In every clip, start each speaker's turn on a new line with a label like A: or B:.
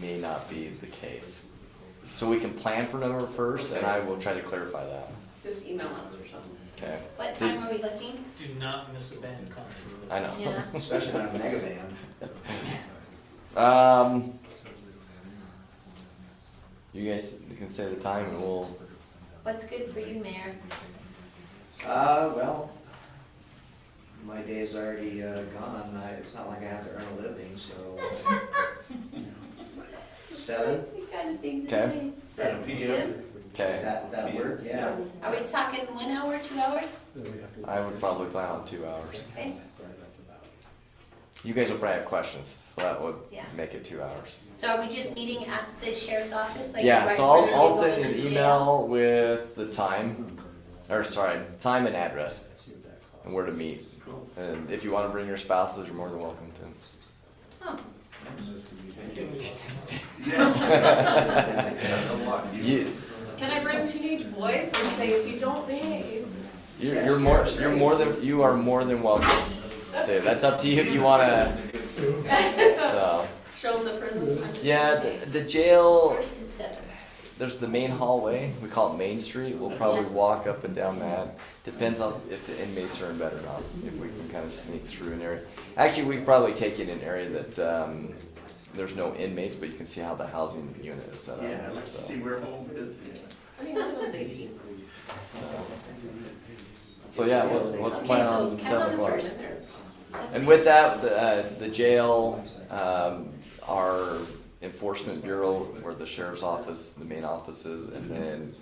A: may not be the case. So we can plan for November first, and I will try to clarify that,
B: Just email us or something.
A: okay?
C: What
A: Please.
C: time are we looking?
D: Do not miss a band concert.
A: I know.
C: Yeah.
E: Especially on a mega van.
A: Um, you guys can say the time and we'll,
C: What's good for you, Mayor?
E: Uh, well, my day's already uh, gone. I, it's not like I have to earn a living, so. uh, Seven,
C: We got a thing to
A: Okay.
C: say.
B: Seven
C: Jim,
A: okay,
E: that, that work, yeah.
C: Are we talking one hour, two hours?
A: I would probably plan on two hours.
C: Okay.
A: You guys will probably have questions, so that would
C: Yeah.
A: make it two hours.
C: So are we just meeting at the sheriff's office? like
A: Yeah,
C: right
A: so I'll,
C: where
A: I'll
C: we're
A: send you
C: going
A: an
C: to jail?
A: email with the time, or sorry, time and address, and where to meet. And if you wanna bring your spouses, you're more than welcome to.
C: Oh,
A: You,
B: Can I bring teenage boys and say, if you don't behave?
A: You're, you're more, you're more than, you are more than welcome. Dude, that's up to you if you wanna, so,
B: Show them the prison. I'm just
A: yeah,
B: kidding.
A: the- the jail,
C: first and seven.
A: there's the main hallway, we call it Main Street, we'll probably walk up and down that. Depends on if the inmates are in bed or not, if we can kind of sneak through an area. Actually, we probably take it in an area that, um, there's no inmates, but you can see how the housing unit is set up, so.
F: where home is.
B: I mean, that was eighteen.
A: So, yeah, let's, let's plan on
C: Okay, so
A: seven
C: count on
A: o'clock.
C: first. Seven.
A: And with that, the, uh, the jail, um, our enforcement bureau, where the sheriff's office, the main offices, and then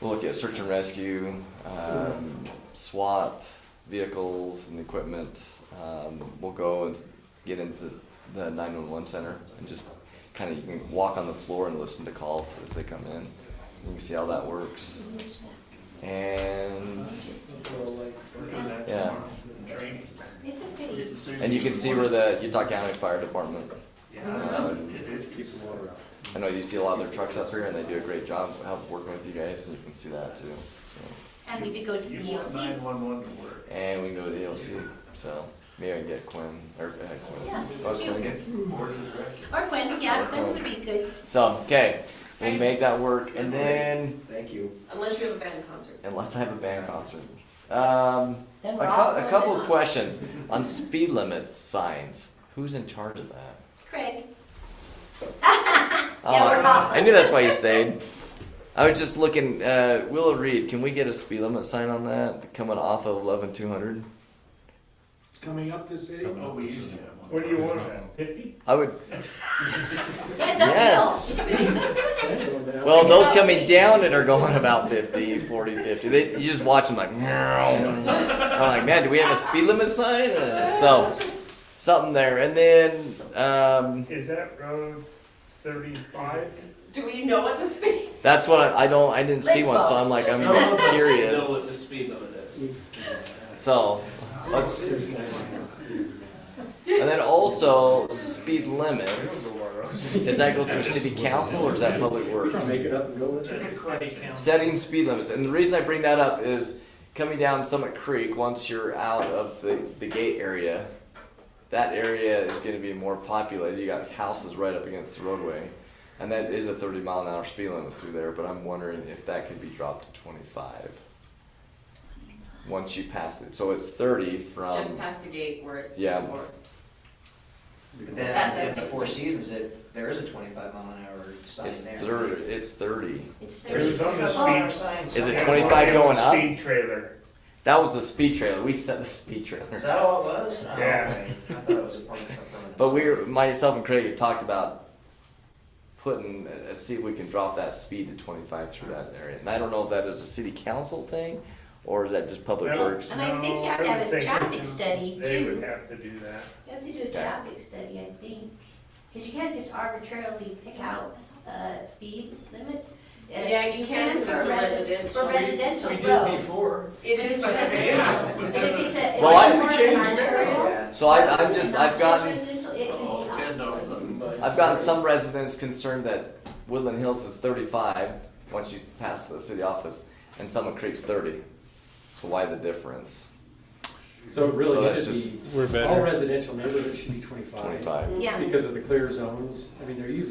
A: we'll look at search and rescue, um, SWAT vehicles and equipment. Um, we'll go and get into the nine-one-one center and just kind of, you can walk on the floor and listen to calls as they come in. You can see how that works. And, yeah.
C: It's a pretty,
A: And you can see where the Utah County Fire Department. um, I know you see a lot of their trucks up here, and they do a great job help working with you guys, and you can see that too. so.
C: and we could go to the E
F: You want
C: EOC.
F: nine one one to work.
A: And we can go to the AOC, so maybe I can get Quinn or uh, Quinn.
C: Yeah,
A: Oh, it's
C: cute.
A: Quinn.
F: It's board of directors.
C: Or Quinn, yeah, Quinn would be good.
A: So okay, we'll make that work, and then
E: Thank you.
B: Unless you have a band concert.
A: unless I have a band concert. Um,
C: Then
A: a,
C: we're all
A: cou- a
C: going
A: couple
C: to-
A: of questions on speed limit signs. Who's in charge of that?
C: Craig,
A: Oh,
C: Yeah, we're not.
A: I knew that's why you stayed. I was just looking, uh, Willow Reed, can we get a speed limit sign on that coming off of eleven two hundred?
G: Coming up the city?
F: Oh, we used to have one.
H: What do you want, fifty?
A: I would,
C: yeah, it's
A: Yes.
C: uphill.
A: well, those coming down that are going about 50, 40, 50, they, you just watch them like, meow. I'm like, man, do we have a speed limit sign? Uh, So, something there. And then, um,
H: Is that road thirty-five?
B: Do we know what this means?
A: that's what I, I don't, I didn't see one, so I'm like, I'm curious.
F: speed limit is.
A: So, let's, and then also speed limits. Does that go through city council or is that public works? Setting speed limits, and the reason I bring that up is coming down Summit Creek, once you're out of the, the gate area, that area is gonna be more populated, you got houses right up against the roadway. And that is a thirty mile an hour speed limit through there, but I'm wondering if that could be dropped to twenty-five. Once you pass it, so it's thirty from,
B: Just past the gate where it's.
A: Um, Yeah.
B: more. That
E: But then,
B: does
E: at the
B: make
E: Four
B: sense.
E: Seasons, it, there is a twenty-five mile an hour sign
A: it's
E: there.
A: thirty, it's thirty.
C: It's
E: There's a
C: Thursday.
H: It was
E: twenty-five
H: on the
E: mile an hour
H: speed.
E: sign.
A: Is it
H: Yeah,
A: 25
H: well, it was
A: going up?
H: Speed trailer.
A: That was the speed trailer, we set the speed trailer.
E: Is that all it was? Oh,
H: Yeah.
E: okay. I thought it was a permanent. a permanent
A: But we were, myself and Craig had talked about putting, uh, see if we can drop that speed to twenty-five through that area. And I don't know if that is a city council thing, or is that just public
H: No.
A: works?
C: And I think you have to
H: No, I
C: have a
H: would think
C: traffic
H: they would-
C: study,
H: They
C: too.
H: would have to do that.
C: You have to do a traffic study, I think, because you can't just arbitrarily pick out, uh, speed limits. Uh,
B: Yeah, you can, 'cause
C: for
B: it's a
C: resi-
B: residential.
C: For residential
F: We did
C: road.
F: before.
B: It
C: If
B: is
C: it's
B: what it
C: residential, and if
B: is.
C: it's a, if it's
A: Well, I-
C: more of an arterial.
E: Yeah.
A: So I, I'm just,
C: not
A: I've gotten,
C: residential, it can be
F: Oh,
C: up.
F: ten dollars.
A: I've gotten some residents concerned that Woodland Hills is thirty-five, once you pass the city office, and Summit Creek's thirty. So why the difference?
I: So it really
A: So that's
I: should
A: just-
I: be,
J: We're better.
I: all residential neighborhoods should be twenty-five.
A: twenty-five.
C: Yeah.
I: Because of the clear zones, I mean, they're using